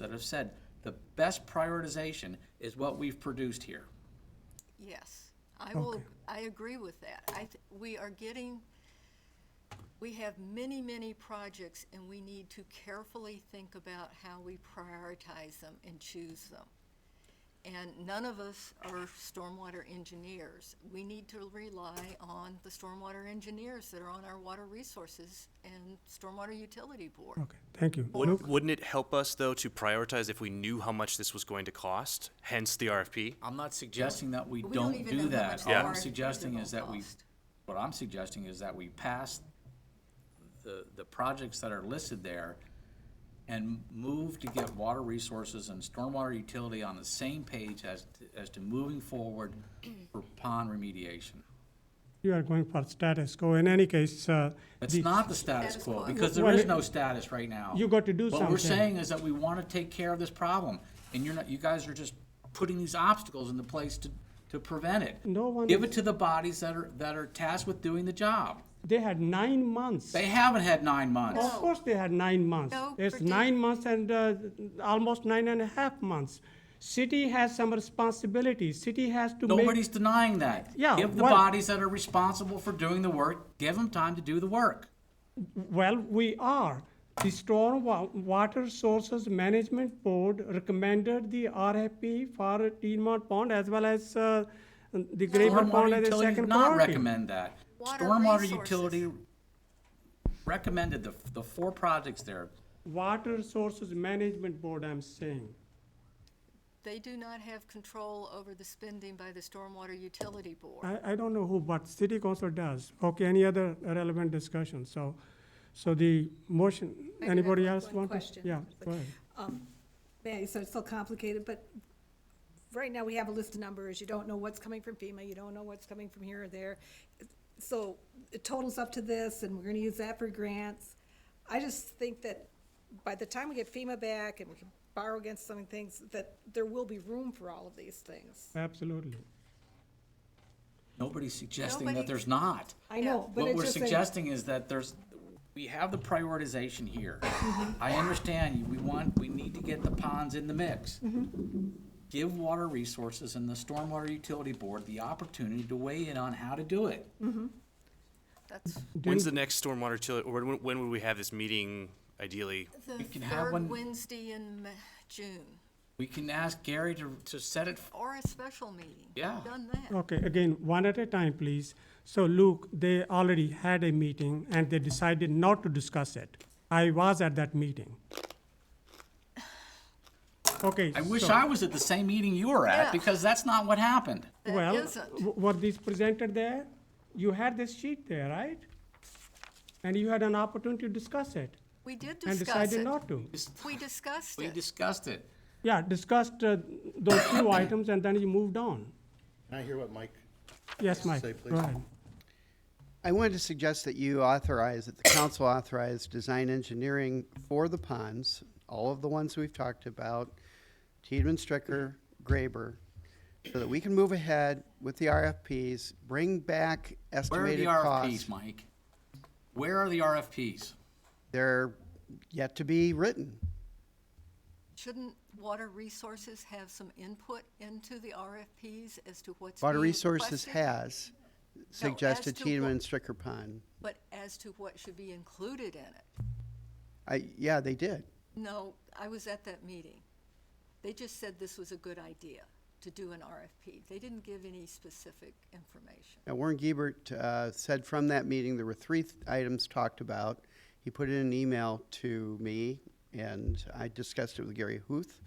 that have said the best prioritization is what we've produced here. Yes, I will, I agree with that. I, th- we are getting, we have many, many projects, and we need to carefully think about how we prioritize them and choose them. And none of us are stormwater engineers. We need to rely on the stormwater engineers that are on our water resources and stormwater utility board. Okay, thank you. Luke? Would, wouldn't it help us though to prioritize if we knew how much this was going to cost? Hence the RFP. I'm not suggesting that we We don't don't even do know how much that. the All I'm RFP suggesting will is that we, cost. what I'm suggesting is that we pass the, the projects that are listed there and move to get water resources and stormwater utility on the same page as, as to moving forward for pond remediation. You are going for status quo. In any case, uh, It's the- not the status Status quo, quo. because there Well, is it- no status right now. You got to do What we're something. saying is that we want to take care of this problem, and you're not, you guys are just putting these obstacles into place to, to prevent it. No one Give is- it to the bodies that are, that are tasked with doing the job. they had nine months. They haven't had nine months. Of course, they had nine months. No It's predict- nine months and uh, almost nine and a half months. City has some responsibility. City has to make. Nobody's denying that. Yeah, Give the well- bodies that are responsible for doing the work, give them time to do the work. Well, we are. The Storm Wa- Water Sources Management Board recommended the RFP for Tiedemann Pond as well as uh, the Grayburg Pond Stormwater as a utility second did not priority. recommend that. Water Stormwater resources. utility recommended the, the four projects there. Water Sources Management Board, I'm saying. They do not have control over the spending by the stormwater utility board. I, I don't know who, but city council does. Okay, any other relevant discussion? So, so the motion, have anybody one- else one want to? question. Yeah, go ahead. Yeah, so it's still complicated, but right now we have a list of numbers. You don't know what's coming from FEMA, you don't know what's coming from here or there. So it totals up to this and we're gonna use that for grants. I just think that by the time we get FEMA back and we can borrow against some things, that there will be room for all of these things. Absolutely. Nobody's suggesting that Nobody- there's not. I know, but What it's we're just like- suggesting is that there's, we have the prioritization here. I understand you, we want, we need to get the ponds in the mix. Give Water Resources and the Stormwater Utility Board the opportunity to weigh in on how to do it. That's When's the next stormwater utility? Or when, when would we have this meeting? Ideally, the We can have one- third Wednesday in Ma- June, We can ask Gary to, to set it, f- or a special meeting. We've Yeah. Done that. Okay, again, one at a time, please. So Luke, they already had a meeting and they decided not to discuss it. I was at that meeting. Okay. I wish so- I was at the same meeting you were Yeah. at, because that's not what happened. That Well, isn't. w- were these presented there? You had this sheet there, right? And you had an opportunity to discuss it We did discuss and decided it. not to. We discussed We it. discussed it. Yeah, discussed uh, those few items and then you moved on. Can I hear what Mike? Yes, Mike, Say, go please. ahead. I wanted to suggest that you authorize, that the council authorize design engineering for the ponds, all of the ones we've talked about, Tiedemann, Stricker, Graber, so that we can move ahead with the RFPs, bring back Where are the estimated RFPs, costs. Mike? Where are the RFPs? They're yet to be written. Shouldn't Water Resources have some input into the RFPs as to what's Water being Resources requested? has suggested to Tiedemann what- and Stricker Pond. But as to what should be included in it? I, yeah, they did. No, I was at that meeting. They just said this was a good idea to do an RFP. They didn't give any specific information. Now, Warren Giebert uh, said from that meeting, there were three th- items talked about. He put in an email to me, and I discussed it with Gary Huth.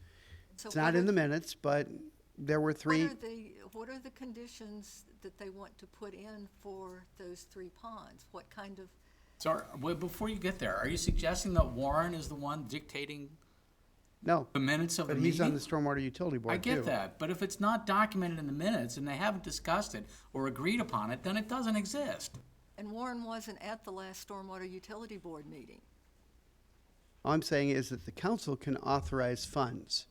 So what It's not in are- the minutes, but there were three. What are the, what are the conditions that they want to put in for those three ponds? What kind of, So, are- wait, before you get there, are you suggesting that Warren is the one dictating No, the minutes of the but he's on the meeting? Stormwater Utility Board, Um, I get too. that, but if it's not documented in the minutes and they haven't discussed it or agreed upon it, then it doesn't exist. and Warren wasn't at the last Stormwater Utility Board meeting. All I'm saying is that the council can authorize funds.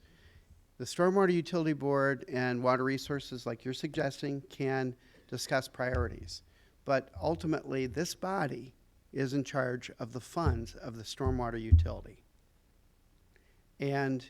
The Stormwater Utility Board and Water Resources, like you're suggesting, can discuss priorities. But ultimately, this body is in charge of the funds of the stormwater utility. And